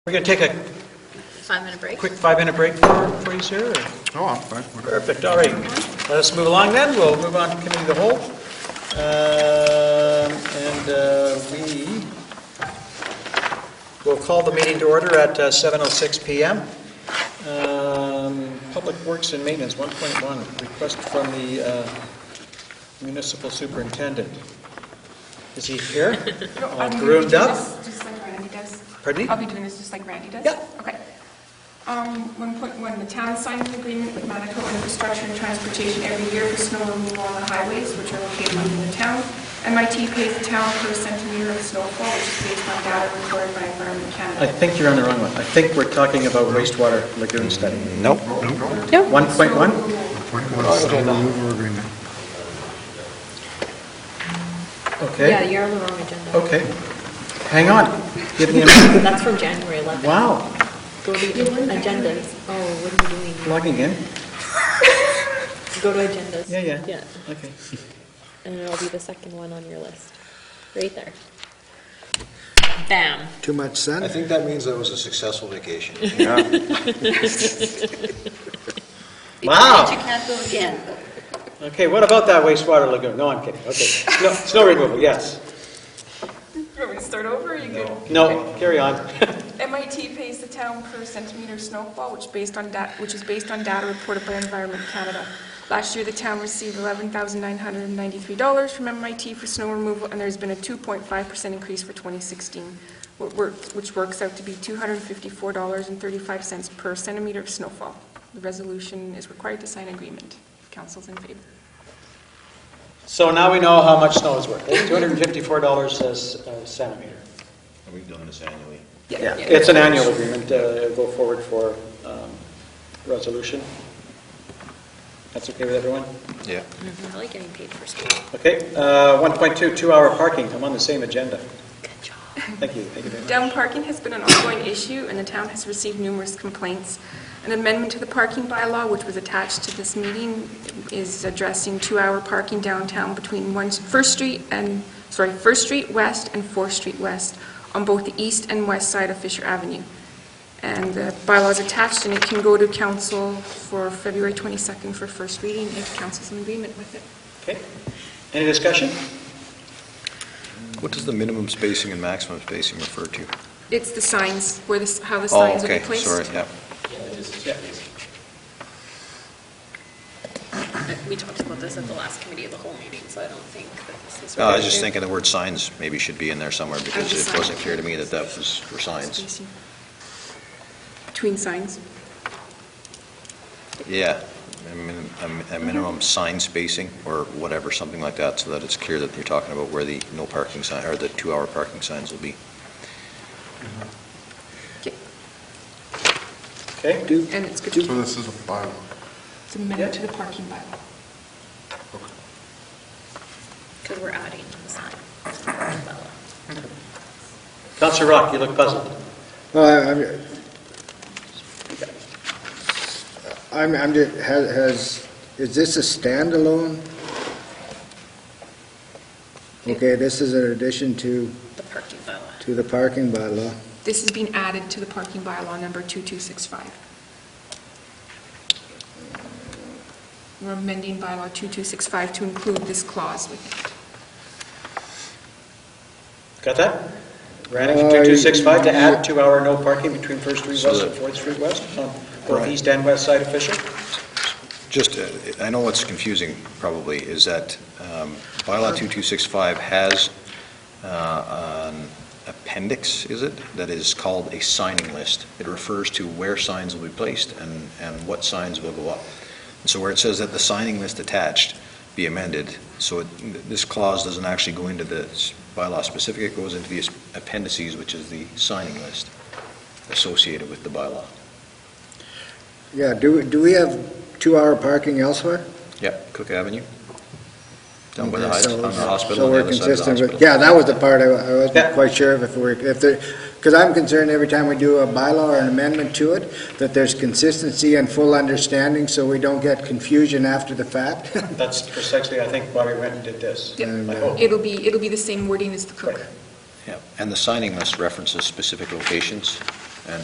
We're going to take a Five-minute break. quick five-minute break for, for you, sir. or- Oh, I'm fine. Perfect, all right. Let us move along then, we'll move on to committee of the whole. Um, And uh, we will call the meeting to order at uh, 7:06 PM. Um, Public Works and Maintenance, 1.1, request from the uh, municipal superintendent. Is he here? All Oh, groomed up? Just like Randy does. Pardon me? I'll be doing this just like Randy does? Yeah. Okay. Um, 1.1, the town signed an agreement with Manitoba Infrastructure and Transportation every year for snow removal on the highways, which are located within the town. MIT pays the town per centimeter of snowfall, which is based on data recorded by Environment I Canada. think you're on the wrong one. I think we're talking about wastewater lagoon study. Nope. 1.1? Point one, snow removal agreement. Yeah, Okay, you're on the wrong agenda. okay. Hang on. Give me a minute. That's from January 11th. Wow, Go to agendas. Oh, what are you doing? logging in. Go to agendas. Yeah, yeah. Yeah, Okay. and it'll be the second one on your list, right there. Bam. Too much I sun? think that means that was a successful vacation. Wow. can't go again. Okay, what about that wastewater lagoon? No, I'm kidding. Okay. No, snow removal, yes. You want me to start over? or you good? No, carry on. MIT pays the town per centimeter of snowfall, which based on dat, which is based on data reported by Environment Canada. Last year, the town received eleven thousand nine hundred and ninety-three dollars from MIT for snow removal, and there's been a two point five percent increase for twenty sixteen, which works, which works out to be two hundred and fifty-four dollars and thirty-five cents per centimeter of snowfall. The resolution is required to sign agreement. Council's in favor. So now we know how much snow is worth. It's $254 a uh, centimeter. We've done this annually. Yeah, it's an annual agreement, uh, it'll go forward for um, resolution. That's okay with everyone? Yeah. Mm-hmm. I like getting paid for school. Okay, uh, 1.2, two-hour parking, I'm on the same agenda. Good job. Thank you, thank you very much. Down parking has been an ongoing issue, and the town has received numerous complaints. An amendment to the parking bylaw, which was attached to this meeting, is addressing two-hour parking downtown between one, First Street and, sorry, First Street West and Fourth Street West on both the east and west side of Fisher Avenue. And the bylaw is attached, and it can go to council for February 22nd for first reading, if council's in agreement with it. Okay, any discussion? What does the minimum spacing and maximum spacing refer to? It's the signs, where the, s- how the Oh, signs are okay, placed. sorry, yeah. Yeah. We talked about this at the last committee of the whole meeting, so I don't think that this is. No, Oh, I was just thinking the word signs maybe should be in there somewhere because just it sign. wasn't clear to me that that was for signs. Spacing. Between signs. Yeah, a min- a mi- a Mm-hmm. minimum sign spacing or whatever, something like that, so that it's clear that you're talking about where the no parking sign, or the two-hour parking signs will be. Okay, Do, And it's good to do- keep this is a bylaw. the minute to the parking bylaw. Because we're adding the sign. Counselor Rock, you look puzzled. no, I- I'm, I'm, I'm, ju- has, has, is this a standalone? Okay, this is an addition to, The parking bylaw. to the parking bylaw. This is being added to the parking bylaw number 2265. We're amending bylaw 2265 to include this clause with it. Got that? Reading from Uh, 2265 to add two-hour no parking between First Street So West and that- Fourth Street West on both Right. east and west side of Fisher? Just, uh, I know what's confusing probably is that um, bylaw 2265 has uh, an appendix, is it, that is called a signing list. It refers to where signs will be placed and, and what signs will go up. And So where it says that the signing list attached be amended, so it- this clause doesn't actually go into the s- bylaw specific, it goes into the appendices, which is the signing list associated with the bylaw. Yeah, do, we- do we have two-hour parking elsewhere? Yep, Cook Avenue. Down by the Okay, high- so- on the hospital, so on the we're other side of the consistent with- hospital. Yeah, that was the part I wa- I Yeah. wasn't quite sure if we're, if there, because I'm concerned every time we do a bylaw or an amendment to it, that there's consistency and full understanding, so we don't get confusion after the fact. That's precisely, I think, why we went and did this. Yeah. I uh, hope. It'll be, it'll be the same wording as the Right. cook. Yeah, And the signing list references specific locations,